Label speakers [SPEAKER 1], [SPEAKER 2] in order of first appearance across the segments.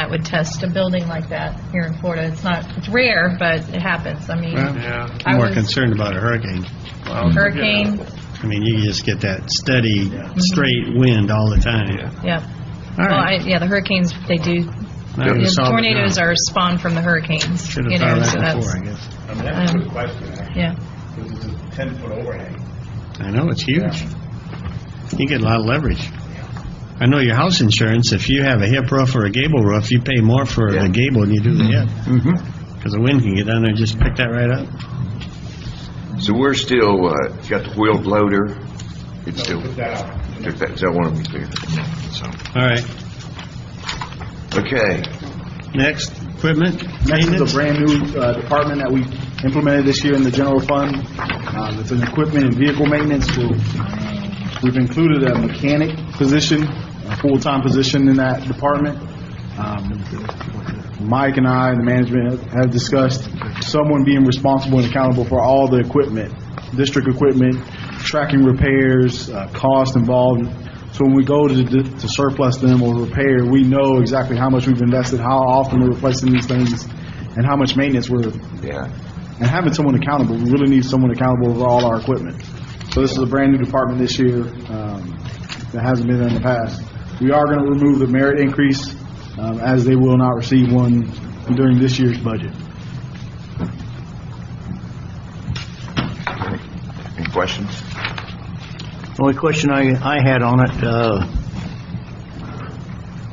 [SPEAKER 1] that would test a building like that here in Florida. It's not, it's rare, but it happens. I mean,
[SPEAKER 2] Well,
[SPEAKER 3] Yeah.
[SPEAKER 1] I
[SPEAKER 2] I'm more
[SPEAKER 1] was-
[SPEAKER 2] concerned about a hurricane.
[SPEAKER 3] Well,
[SPEAKER 1] hurricane,
[SPEAKER 2] I mean, you just get that steady, straight wind all the time.
[SPEAKER 1] yeah.
[SPEAKER 2] All
[SPEAKER 1] Well, I,
[SPEAKER 2] right.
[SPEAKER 1] yeah, the hurricanes, they do,
[SPEAKER 2] Now we solved
[SPEAKER 1] the
[SPEAKER 2] it now.
[SPEAKER 1] tornadoes are spawned from the hurricans,
[SPEAKER 2] Should
[SPEAKER 1] you
[SPEAKER 2] have
[SPEAKER 1] know,
[SPEAKER 2] thought of
[SPEAKER 1] so
[SPEAKER 2] that
[SPEAKER 1] that's,
[SPEAKER 2] before, I guess.
[SPEAKER 4] I mean, that's a
[SPEAKER 1] Um,
[SPEAKER 4] good question, actually,
[SPEAKER 1] yeah.
[SPEAKER 4] because it's a ten-foot overhang.
[SPEAKER 2] I know, it's huge. You get a lot of leverage. I know your house insurance, if you have a hip roof or a gable roof, you pay more for the gable than you do the hip. Because the wind can get down there and just pick that right up.
[SPEAKER 5] So we're still, uh, got the wheeled loader, it's still,
[SPEAKER 4] Put that out.
[SPEAKER 5] took that, so I want to be clear. So,
[SPEAKER 2] All right,
[SPEAKER 5] Okay,
[SPEAKER 2] next, equipment,
[SPEAKER 6] Next is
[SPEAKER 2] maintenance.
[SPEAKER 6] a brand-new uh, department that we implemented this year in the general fund. Um, It's an equipment and vehicle maintenance. We'll- We've included a mechanic position, a full-time position in that department. Um, Mike and I and the management have- have discussed someone being responsible and accountable for all the equipment, district equipment, tracking repairs, uh, cost involved. So when we go to to surplus them or repair, we know exactly how much we've invested, how often we're replacing these things, and how much maintenance we're
[SPEAKER 5] yeah.
[SPEAKER 6] and having someone accountable. We really need someone accountable over all our equipment. So this is a brand-new department this year um, that hasn't been there in the past. We are going to remove the merit increase um, as they will not receive one during this year's budget.
[SPEAKER 5] Any questions?
[SPEAKER 7] Only question I, I had on it, uh,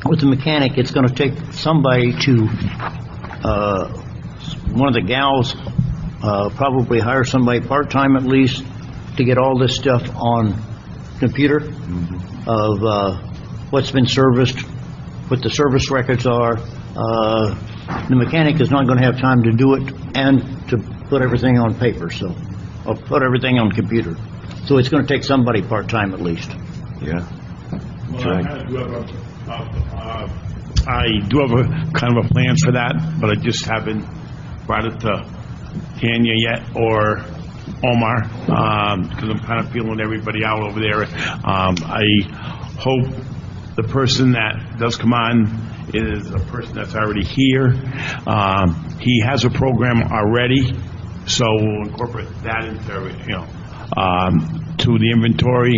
[SPEAKER 7] with the mechanic, it's gonna take somebody to, uh, one of the gals, uh, probably hire somebody part-time at least to get all this stuff on computer
[SPEAKER 2] Mm-hmm.
[SPEAKER 7] of, uh, what's been serviced, what the service records are. Uh, the mechanic is not gonna have time to do it and to put everything on paper, so, or put everything on computer. So it's gonna take somebody part-time at least.
[SPEAKER 5] Yeah.
[SPEAKER 4] Well, I kinda do have a, uh, uh,
[SPEAKER 3] I do have a kind of a plan for that, but I just haven't brought it to Tanya yet or Omar, because I'm kind of feeling everybody out over there. Um, I hope the person that does come on is a person that's already here. Um, He has a program already, so we'll incorporate that into, you know, um, to the inventory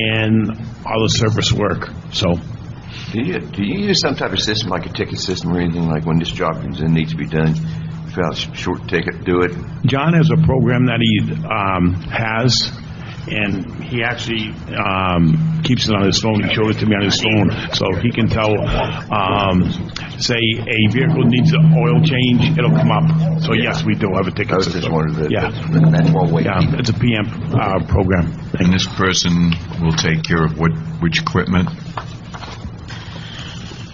[SPEAKER 3] and all the service work, so.
[SPEAKER 5] Do you, do you use some type of system, like a ticket system or anything, like when this job comes in, needs to be done, fill out a sh- short ticket, do it?
[SPEAKER 3] John has a program that he um, has, and he actually um, keeps it on his phone. He showed it to me on his phone, so he can tell, um, say, a vehicle needs an oil change, it'll come up. So yes, we do have a
[SPEAKER 5] I
[SPEAKER 3] ticket
[SPEAKER 5] was just
[SPEAKER 3] system.
[SPEAKER 5] wondering, that-
[SPEAKER 3] Yeah,
[SPEAKER 5] that's that's why we
[SPEAKER 3] yeah, it's a PM uh, program.
[SPEAKER 8] And this person will take care of what, which equipment?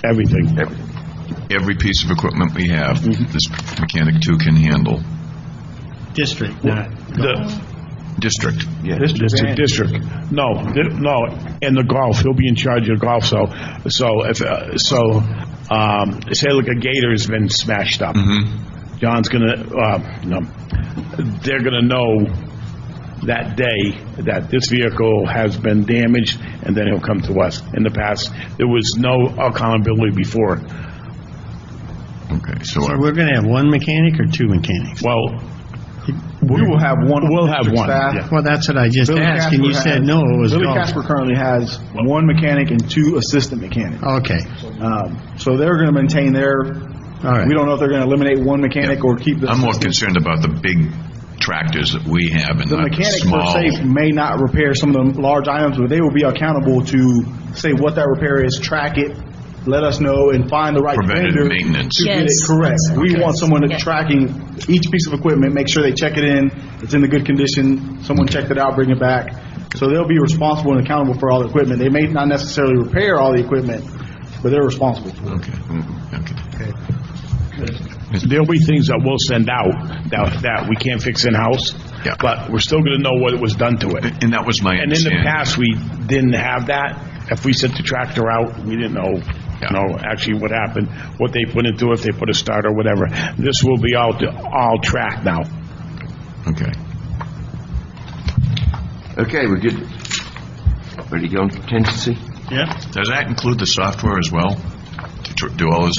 [SPEAKER 3] Everything.
[SPEAKER 5] everything.
[SPEAKER 8] Every piece of equipment we have,
[SPEAKER 3] Mm-hmm.
[SPEAKER 8] this mechanic too can handle.
[SPEAKER 2] District, not
[SPEAKER 3] The
[SPEAKER 8] District.
[SPEAKER 5] Yeah.
[SPEAKER 3] district, district. No, di- no, and the golf, he'll be in charge of golf, so, so if, uh, so, um, say like a gator's been smashed up. John's gonna, uh, no, they're gonna know that day that this vehicle has been damaged, and then he'll come to us. In the past, there was no accountability before.
[SPEAKER 8] Okay, so
[SPEAKER 2] So
[SPEAKER 8] I-
[SPEAKER 2] we're going to have one mechanic or two mechanics?
[SPEAKER 3] Well,
[SPEAKER 6] We will have one.
[SPEAKER 3] We'll have
[SPEAKER 6] district
[SPEAKER 3] one,
[SPEAKER 6] staff.
[SPEAKER 3] yeah.
[SPEAKER 2] Well, that's what I just
[SPEAKER 6] Billy
[SPEAKER 2] asked, and you
[SPEAKER 6] Casper
[SPEAKER 2] said
[SPEAKER 6] has-
[SPEAKER 2] no, it was
[SPEAKER 6] Billy
[SPEAKER 2] golf.
[SPEAKER 6] Casper currently has one mechanic and two assistant mechanics.
[SPEAKER 2] Okay,
[SPEAKER 6] Um, So they're going to maintain their,
[SPEAKER 2] All right.
[SPEAKER 6] we don't know if they're going to eliminate one mechanic or keep the
[SPEAKER 8] I'm more
[SPEAKER 6] assistant.
[SPEAKER 8] concerned about the big tractors that we have and
[SPEAKER 6] The
[SPEAKER 8] not the
[SPEAKER 6] mechanic per
[SPEAKER 8] small.
[SPEAKER 6] se may not repair some of the large items, but they will be accountable to say what that repair is, track it, let us know, and find the right
[SPEAKER 8] Preventative
[SPEAKER 6] vendor.
[SPEAKER 8] maintenance.
[SPEAKER 6] To get it
[SPEAKER 1] Yes.
[SPEAKER 6] correct. We want someone to
[SPEAKER 1] Yes.
[SPEAKER 6] tracking each piece of equipment, make sure they check it in, it's in the good condition, someone checked it out, bring it back. So they'll be responsible and accountable for all the equipment. They may not necessarily repair all the equipment, but they're responsible for it.
[SPEAKER 8] Okay, okay.
[SPEAKER 3] There'll be things that we'll send out that, that we can't fix in-house,
[SPEAKER 8] Yeah.
[SPEAKER 3] but we're still gonna know what was done to it.
[SPEAKER 8] And that was my
[SPEAKER 3] And in the
[SPEAKER 8] understanding.
[SPEAKER 3] past, we didn't have that. If we sent the tractor out, we didn't know, you
[SPEAKER 8] Yeah.
[SPEAKER 3] know, actually what happened, what they put into, it, if they put a start or whatever. This will be all, all tracked now.
[SPEAKER 8] Okay.
[SPEAKER 5] Okay, we're good. Ready to go on contingency?
[SPEAKER 2] yeah.
[SPEAKER 8] Does that include the software as well? To tr- do all this